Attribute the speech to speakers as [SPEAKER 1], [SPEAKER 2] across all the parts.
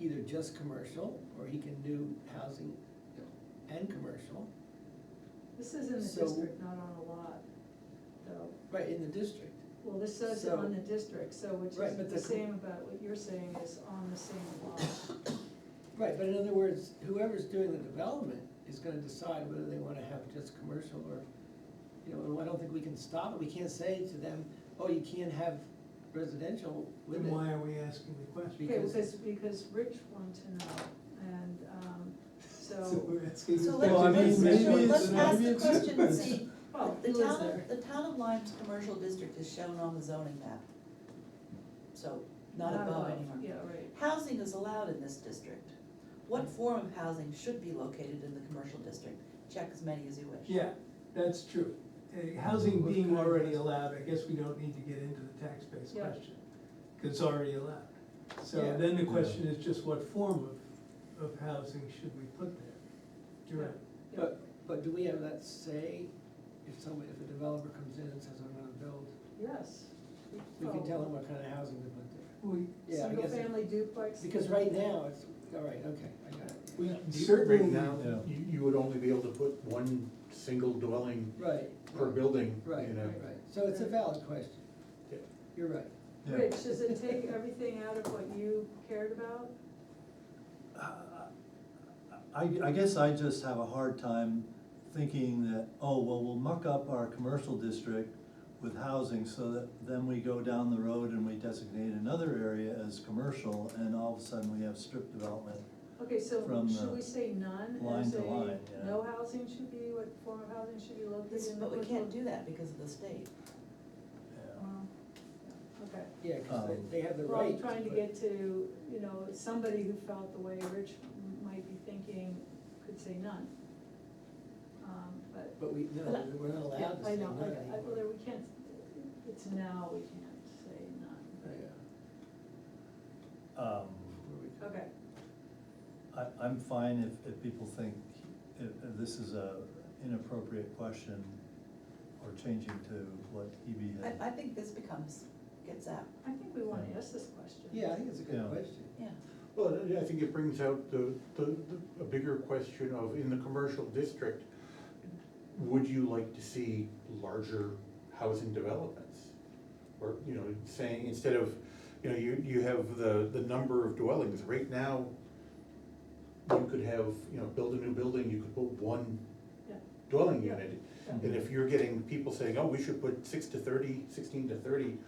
[SPEAKER 1] either just commercial, or he can do housing and commercial,
[SPEAKER 2] This is in the
[SPEAKER 1] So-
[SPEAKER 2] district, not on a lot, though.
[SPEAKER 1] right, in the district.
[SPEAKER 2] Well, this says
[SPEAKER 1] So-
[SPEAKER 2] on the district, so which
[SPEAKER 1] Right,
[SPEAKER 2] is
[SPEAKER 1] but
[SPEAKER 2] the
[SPEAKER 1] the com-
[SPEAKER 2] same about what you're saying is on the same lot.
[SPEAKER 1] Right, but in other words, whoever's doing the development is gonna decide whether they wanna have just commercial or, you know, and I don't think we can stop it, we can't say to them, oh, you can't have residential with
[SPEAKER 3] Then
[SPEAKER 1] it.
[SPEAKER 3] why are we asking the question?
[SPEAKER 2] Okay,
[SPEAKER 1] Because-
[SPEAKER 2] because, because Rich wanted to know, and, um,
[SPEAKER 3] So
[SPEAKER 2] so,
[SPEAKER 3] we're asking. the
[SPEAKER 4] So
[SPEAKER 3] question.
[SPEAKER 4] let's-
[SPEAKER 3] Well, I mean,
[SPEAKER 4] let's-
[SPEAKER 3] maybe
[SPEAKER 4] let's
[SPEAKER 3] it's-
[SPEAKER 4] ask
[SPEAKER 3] maybe
[SPEAKER 4] the
[SPEAKER 3] it's-
[SPEAKER 4] question and see.
[SPEAKER 2] well,
[SPEAKER 4] The
[SPEAKER 2] oh, who is
[SPEAKER 4] town,
[SPEAKER 2] there?
[SPEAKER 4] of- the town of Lyme's commercial district is shown on the zoning map. So, not above anymore.
[SPEAKER 2] Yeah, right.
[SPEAKER 4] Housing is allowed in this district. What form of housing should be located in the commercial district? Check as many as you wish.
[SPEAKER 3] Yeah, that's true. Uh, Housing
[SPEAKER 1] What
[SPEAKER 3] being
[SPEAKER 1] kind of-
[SPEAKER 3] already allowed, I guess we don't need to get into the tax base
[SPEAKER 2] Yeah.
[SPEAKER 3] question, because it's already allowed. So
[SPEAKER 1] Yeah.
[SPEAKER 3] then the question is just what form of, of housing should we put there? You're right.
[SPEAKER 1] But, but do we have that say, if somebody, if a developer comes in and says, I'm gonna build,
[SPEAKER 2] Yes. Oh,
[SPEAKER 1] we can tell them what kind of housing to put there?
[SPEAKER 3] We,
[SPEAKER 1] Yeah, I
[SPEAKER 2] Single
[SPEAKER 1] guess,
[SPEAKER 2] family duplex.
[SPEAKER 1] because right now, it's, all right, okay, I got it,
[SPEAKER 3] we
[SPEAKER 5] Right
[SPEAKER 3] certainly,
[SPEAKER 5] now, you, you would only be able to put one single dwelling
[SPEAKER 1] right.
[SPEAKER 5] per building, you
[SPEAKER 1] Right, right,
[SPEAKER 5] know.
[SPEAKER 1] right, so it's a valid question,
[SPEAKER 5] Yeah.
[SPEAKER 1] you're right.
[SPEAKER 2] Rich, does it take everything out of what you cared about?
[SPEAKER 6] I, I guess I just have a hard time thinking that, oh, well, we'll muck up our commercial district with housing so that then we go down the road and we designate another area as commercial and all of a sudden we have strip development.
[SPEAKER 2] Okay, so
[SPEAKER 6] From
[SPEAKER 2] should
[SPEAKER 6] the
[SPEAKER 2] we say none
[SPEAKER 6] line
[SPEAKER 2] as
[SPEAKER 6] to
[SPEAKER 2] a,
[SPEAKER 6] line, yeah.
[SPEAKER 2] no housing should be, what form of housing should be located
[SPEAKER 4] This-
[SPEAKER 2] in the.
[SPEAKER 4] But we
[SPEAKER 2] coastal-
[SPEAKER 4] can't do that because of the state.
[SPEAKER 6] Yeah.
[SPEAKER 2] Well, yeah, Okay,
[SPEAKER 1] Yeah, cause
[SPEAKER 6] Um,
[SPEAKER 1] they, they have the
[SPEAKER 2] well,
[SPEAKER 1] right.
[SPEAKER 2] I'm trying to
[SPEAKER 1] but-
[SPEAKER 2] get to, you know, somebody who felt the way Rich might be thinking could say none. Um, but,
[SPEAKER 1] But we, no,
[SPEAKER 2] But I-
[SPEAKER 1] we're not
[SPEAKER 2] yeah,
[SPEAKER 1] allowed to
[SPEAKER 2] I
[SPEAKER 1] say
[SPEAKER 2] know,
[SPEAKER 1] no
[SPEAKER 2] I, I, well,
[SPEAKER 1] anymore.
[SPEAKER 2] there, we can't, it's now we can't say none, but,
[SPEAKER 1] Yeah,
[SPEAKER 6] Um,
[SPEAKER 1] where we go.
[SPEAKER 2] okay,
[SPEAKER 6] I, I'm fine if, if people think if, if this is a inappropriate question or changing to what EB had.
[SPEAKER 4] I, I think this becomes, gets out,
[SPEAKER 2] I think we wanna
[SPEAKER 6] Yeah.
[SPEAKER 2] ask this question.
[SPEAKER 1] Yeah, I think it's a good
[SPEAKER 6] Yeah.
[SPEAKER 1] question.
[SPEAKER 4] yeah.
[SPEAKER 5] Well, I- I think it brings out the, the, the- a bigger question of, in the commercial district, would you like to see larger housing developments? Or, you know, saying, instead of, you know, you, you have the, the number of dwellings, right now, you could have, you know, build a new building, you could put one
[SPEAKER 2] Yeah.
[SPEAKER 5] dwelling
[SPEAKER 2] Yeah.
[SPEAKER 5] unit.
[SPEAKER 2] Yeah.
[SPEAKER 5] And if you're getting people saying, oh, we should put six to thirty, sixteen to thirty,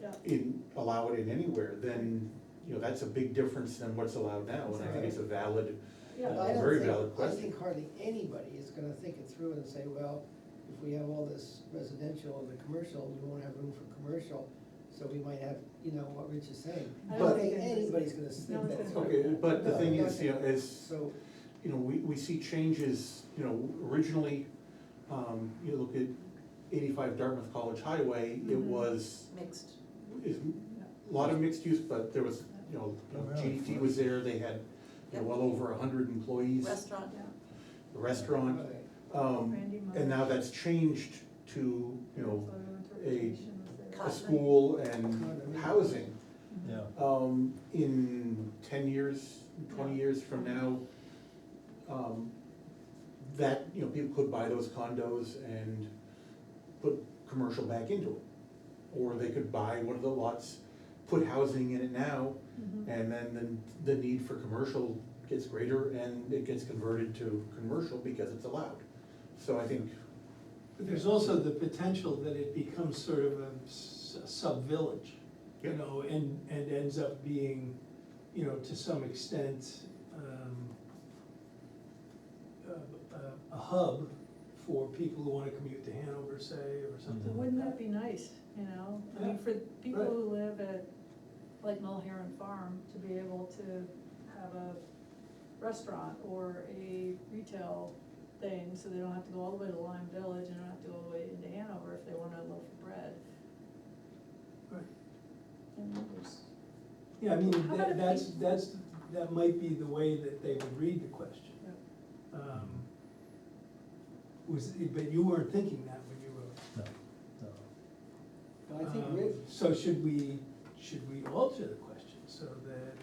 [SPEAKER 2] Yeah,
[SPEAKER 5] in, allow it in anywhere, then, you know, that's a big difference than what's allowed now, and I think it's a valid,
[SPEAKER 2] yeah.
[SPEAKER 1] But I don't
[SPEAKER 5] Very
[SPEAKER 1] think-
[SPEAKER 5] valid question.
[SPEAKER 1] I think hardly anybody is gonna think it through and say, well, if we have all this residential and the commercial, we won't have room for commercial, so we might have, you know, what Rich is saying.
[SPEAKER 2] I
[SPEAKER 1] I
[SPEAKER 2] don't
[SPEAKER 1] don't
[SPEAKER 2] think
[SPEAKER 1] think anybody's gonna
[SPEAKER 2] No
[SPEAKER 1] think
[SPEAKER 2] one's
[SPEAKER 1] that.
[SPEAKER 2] gonna-
[SPEAKER 1] through.
[SPEAKER 5] okay, but the
[SPEAKER 1] No,
[SPEAKER 5] thing
[SPEAKER 1] no,
[SPEAKER 5] is, you know, as,
[SPEAKER 1] So,
[SPEAKER 5] you know, we, we see changes, you know, originally, um, you look at eighty-five Dartmouth College Highway, it
[SPEAKER 2] Mhm.
[SPEAKER 5] was,
[SPEAKER 4] Mixed.
[SPEAKER 5] is, a lot of mixed use, but there was, you know,
[SPEAKER 6] Oh, really?
[SPEAKER 5] GDT was there, they had, you know, well over a hundred employees,
[SPEAKER 4] Restaurant,
[SPEAKER 2] Yeah.
[SPEAKER 5] the restaurant,
[SPEAKER 1] right.
[SPEAKER 5] um,
[SPEAKER 2] Randy Marsh.
[SPEAKER 5] and now that's changed to, you know,
[SPEAKER 2] Photo
[SPEAKER 5] a-
[SPEAKER 2] interpretation was there.
[SPEAKER 5] a
[SPEAKER 4] Cotton.
[SPEAKER 5] school and housing.
[SPEAKER 6] Mm-hmm. Yeah,
[SPEAKER 5] Um, in ten years, twenty years from now, um, that, you know, people could buy those condos and put commercial back into it. Or they could buy one of the lots, put housing in it now,
[SPEAKER 2] Mhm.
[SPEAKER 5] and then the, the need for commercial gets greater and it gets converted to commercial because it's allowed. So I think,
[SPEAKER 3] But there's also the potential that it becomes sort of a s- sub-village, you
[SPEAKER 5] Yeah.
[SPEAKER 3] know, and, and ends up being, you know, to some extent, um, a- a- a hub for people who wanna commute to Hanover, say, or
[SPEAKER 2] But
[SPEAKER 3] something like
[SPEAKER 2] Wouldn't that
[SPEAKER 3] that.
[SPEAKER 2] be nice, you know, I mean, for people
[SPEAKER 3] right.
[SPEAKER 2] who live at, like Mulherron Farm, to be able to have a restaurant or a retail thing, so they don't have to go all the way to Lime Village, and don't have to go all the way into Hanover if they want a loaf of bread.
[SPEAKER 3] Right.
[SPEAKER 2] And there's-
[SPEAKER 3] Yeah, I mean,
[SPEAKER 2] How about
[SPEAKER 3] that-
[SPEAKER 2] if
[SPEAKER 3] that's,
[SPEAKER 2] we-
[SPEAKER 3] that's, that might be the way that they would read the question.
[SPEAKER 2] yeah.
[SPEAKER 3] Um, Was, but you weren't thinking that when you wrote.
[SPEAKER 6] no, no.
[SPEAKER 1] But I think
[SPEAKER 3] Um,
[SPEAKER 1] Rich,
[SPEAKER 3] So should we, should we alter the question so that